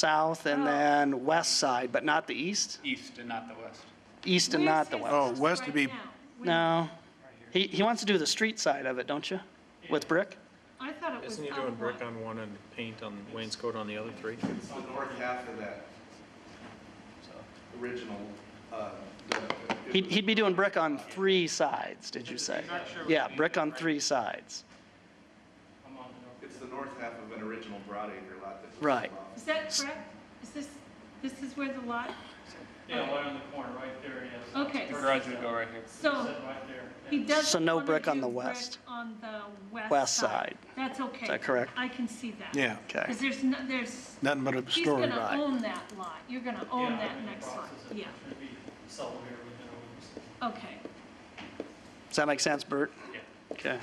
south Oh. and then west side, but not the east? east and not the west. East and not the west? Oh, west would be, No. He, he wants to do the street side of it, don't you? With brick? I thought it was Isn't he doing up one. brick on one and paint on wainscot on the other three? It's the north half of that original, uh, the- He'd, he'd be doing brick on three sides, did you say? Yeah, brick on three sides. it's the north half of an original Broadacre lot that was Right. involved. Is that correct? Is this, this is where the lot, Yeah, right on the corner, right there, yes. okay. Garage would go right here. So Set right there. he doesn't. So no wanna brick on do the west. brick on the west. West side. That's okay. that correct? I can see that. yeah, Okay. Because there's, no- there's, nothing but a he's story, going to right? own that lot. You're going to own that next lot. Yeah, Should be sold here within a week. okay. Does that make sense, Bert? Yeah. Okay.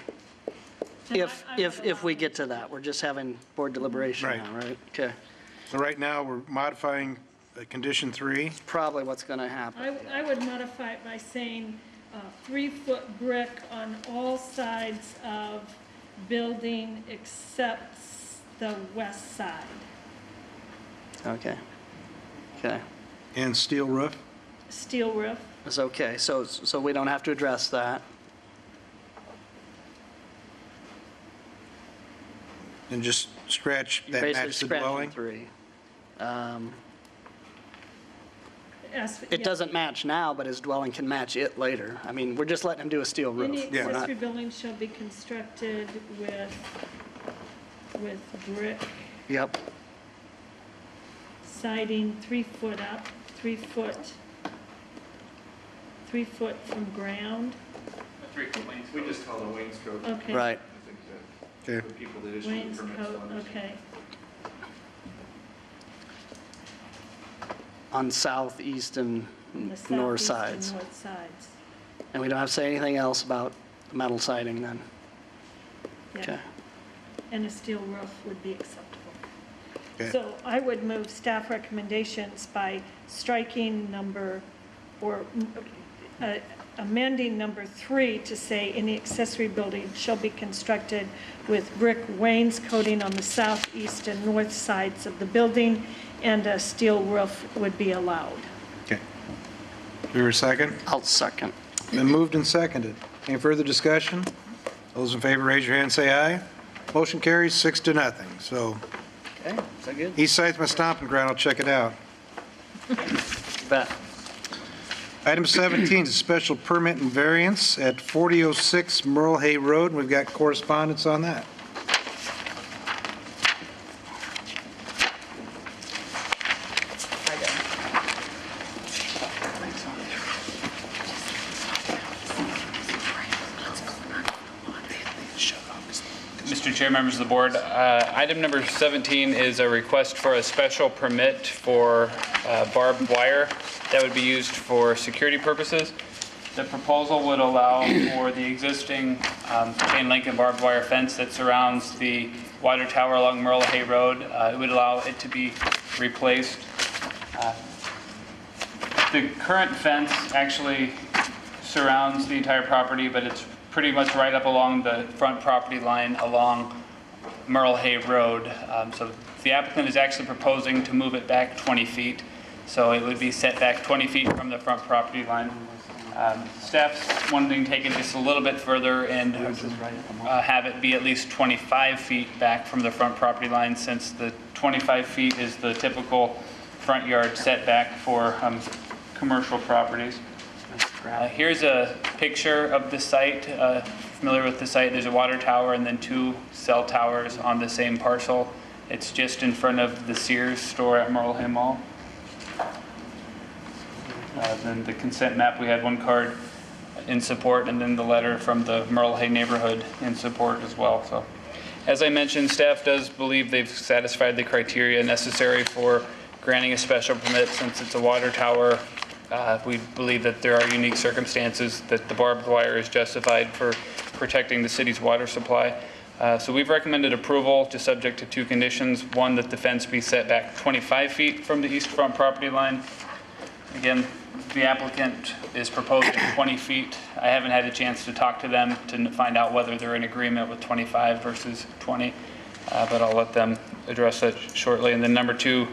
Then If, I- I if, would if we allow get to that, we're just having board deliberation Right. now, right? Okay. So right now, we're modifying uh, condition three. Probably what's going to happen. I, I would modify it by saying, uh, three-foot brick on all sides of building except the west side. Okay. Okay. And steel roof? Steel roof, It's okay. So, so we don't have to address that. And just scratch that Basically match the scratching dwelling? three. Um, as. It yeah. doesn't match now, but his dwelling can match it later. I mean, we're just letting him do a steel Any roof. Yeah. We're not- accessory building shall be constructed with, with brick Yep. siding three foot up, three foot, three foot from ground, Three foot lanes. We just call it a wainscot. I okay. Right. think that Okay. the people that issue the permits will Wainscot, understand. okay. On southeast and The north southeast and sides. North sides, And we don't have to say anything else about metal siding then? yeah. Okay. And a steel roof would be acceptable. Okay. So I would move staff recommendations by striking number, or uh, amending number three to say, any accessory building shall be constructed with brick wainscoting on the southeast and north sides of the building, and a steel roof would be allowed. Okay. Do a second? I'll second. Been moved and seconded. Any further discussion? Those in favor, raise your hand, say aye. Motion carries six to nothing. So Okay, is that good? East Side's my stomping ground, I'll check it out. Bet. Item 17 is a special permit and variance at 4006 Merle Hay Road, we've got correspondence on that. Mr. Chair, members of the board, uh, item number 17 is a request for a special permit for uh, barbed wire that would be used for security purposes. The proposal would allow for the existing um, chain link and barbed wire fence that surrounds the water tower along Merle Hay Road. Uh, It would allow it to be replaced Uh, the current fence actually surrounds the entire property, but it's pretty much right up along the front property line along Merle Hay Road. Um, So the applicant is actually proposing to move it back 20 feet, so it would be set back 20 feet from the front property line. Um, Staff's wanting to take it just a little bit further and uh, have it be at least 25 feet back from the front property line, since the 25 feet is the typical front yard setback for um, commercial properties. Uh, Here's a picture of the site, Uh, familiar with the site, there's a water tower and then two cell towers on the same parcel. It's just in front of the Sears store at Merle Hay Mall. Uh, Then the consent map, we had one card in support, and then the letter from the Merle Hay neighborhood in support as well, so. As I mentioned, staff does believe they've satisfied the criteria necessary for granting a special permit since it's a water tower. Uh, We believe that there are unique circumstances, that the barbed wire is justified for protecting the city's water supply. Uh, So we've recommended approval, just subject to two conditions. One, that the fence be set back 25 feet from the east front property line, Again, the applicant is proposing 20 feet. I haven't had a chance to talk to them to n- find out whether they're in agreement with 25 versus 20, uh, but I'll let them address that shortly. And then number two,